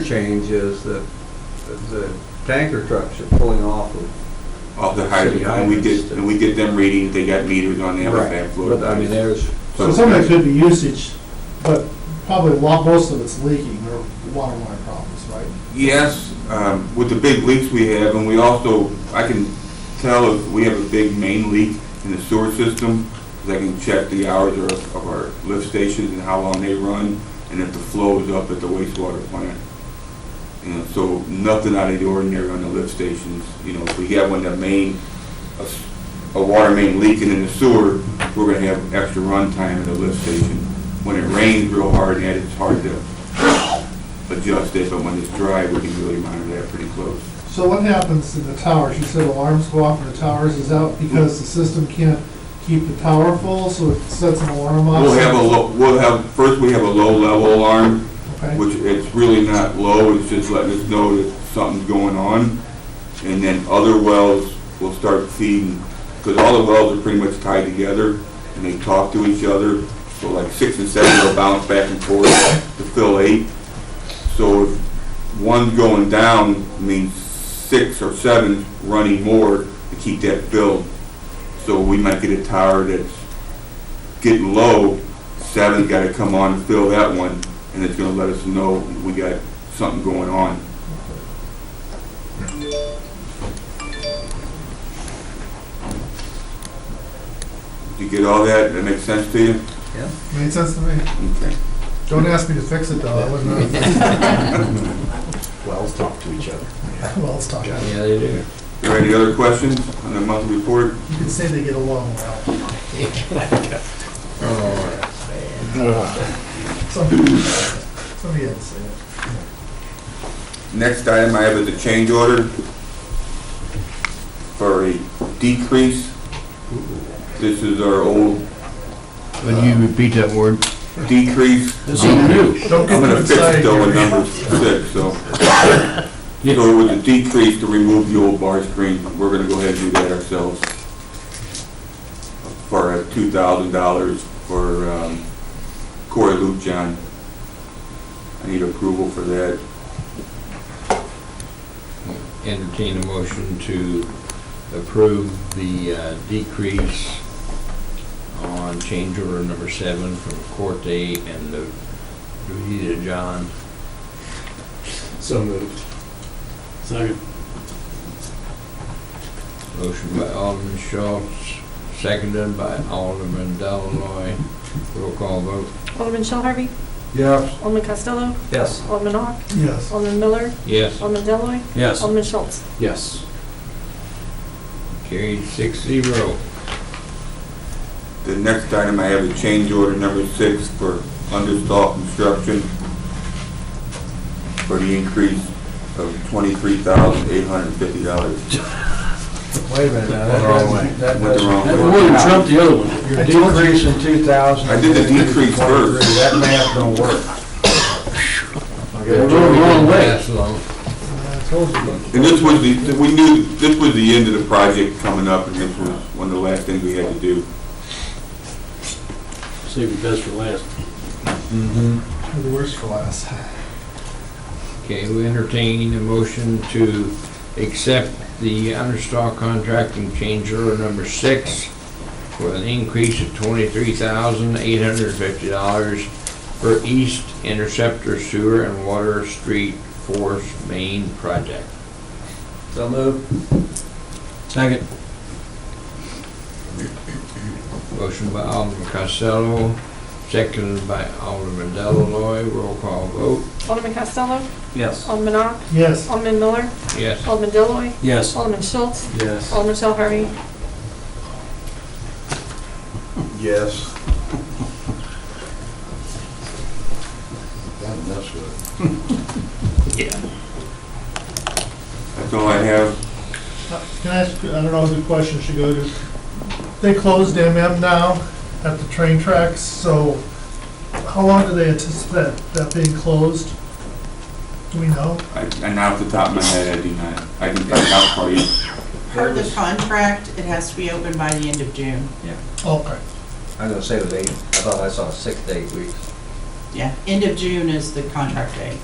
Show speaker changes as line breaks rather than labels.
interchange is that the tanker trucks are pulling off of.
Off the hydrant,
City
and we get,
hydrants.
and we get them reading, they got meters on them, they have
But I mean,
fluid.
there's,
So some of it could be usage, but probably a lot, most of it's leaking or water line problems, right?
Yes, um, with the big leaks we have, and we also, I can tell if we have a big main leak in the sewer system, 'cause I can check the hours of of our lift stations and how long they run, and if the flow is up at the wastewater plant. And so nothing out of the ordinary on the lift stations, you know, if we have one, that main, a s- a water main leaking in the sewer, we're gonna have extra run time at the lift station. When it rains real hard, and it's hard to adjust it, but when it's dry, we can really monitor that pretty close.
So what happens to the towers? You said alarms go off when the towers is out because the system can't keep the tower full, so it sets an alarm off?
We'll have a low, we'll have, first we have a low-level alarm,
Okay.
which it's really not low, it's just letting us know that something's going on. And then other wells will start feeding, because all the wells are pretty much tied together, and they talk to each other. So like six and seven will bounce back and forth to fill eight. So if one's going down, means six or seven running more to keep that filled. So we might get a tower that's getting low, seven's gotta come on and fill that one, and it's gonna let us know we got something going on. You get all that? That makes sense to you?
Made sense to me.
Okay.
Don't ask me to fix it though, I wouldn't know.
Wells talk to each other.
Well, it's talking.
yeah, they do.
There any other questions on the monthly report?
You could say they get along well. Somebody somebody had to say it.
Next item I have is a change order for a decrease. This is our old
Can you repeat that word?
decrease.
Don't
I'm
get
gonna
too
fix it
excited.
though with number six, so. So with the decrease to remove the old bar screen, we're gonna go ahead and do that ourselves. For two thousand dollars for um, Corey Luke John. I need approval for that.
Entertain a motion to approve the uh, decrease on change order number seven from Corte and the Rudy to John.
So moved. Second.
Motion by Alderman Schultz, seconded by Alderman Deloy. Roll call vote.
Alderman Shell Harvey?
Yes.
Alderman Costello?
Yes.
Alderman Ock?
Yes.
Alderman Miller?
Yes.
Alderman Deloy,
Yes.
Alderman Schultz?
Yes.
Carried six zero.
The next item I have is change order number six for understall construction for the increase of twenty-three thousand eight hundred and fifty dollars.
Wait a minute now, that
Went the wrong
doesn't, that
Went the
doesn't.
wrong
that
way.
doesn't-
the other one.
Your decrease in two thousand.
I did the decrease first.
That math don't work.
They wrote it wrong way.
Pass along.
I told you.
And this was the, we knew, this was the end of the project coming up, and this was one of the last things we had to do.
Save the best for last.
Mm-hmm.
The worst for last.
Okay, we entertain a motion to accept the understock contract and change order number six for an increase of twenty-three thousand eight hundred and fifty dollars for East Interceptor Sewer and Water Street Force Main Project.
So move. Second.
Motion by Alderman Costello, seconded by Alderman Deloy. Roll call vote.
Alderman Costello?
Yes.
Alderman Ock?
Yes.
Alderman Miller?
Yes.
Alderman Deloy,
Yes.
Alderman Schultz?
Yes.
Alderman Shell Harvey?
Yes.
That's all I have.
Can I ask, I don't know who the question should go to. They closed MM now at the train tracks, so how long do they anticipate that being closed? Do we know?
I- And off the top of my head, I do not, I can find out for you.
Per the contract, it has to be open by the end of June.
Okay.
I'm gonna say it was eight, I thought I saw six to eight weeks.
Yeah, end of June is the contract date.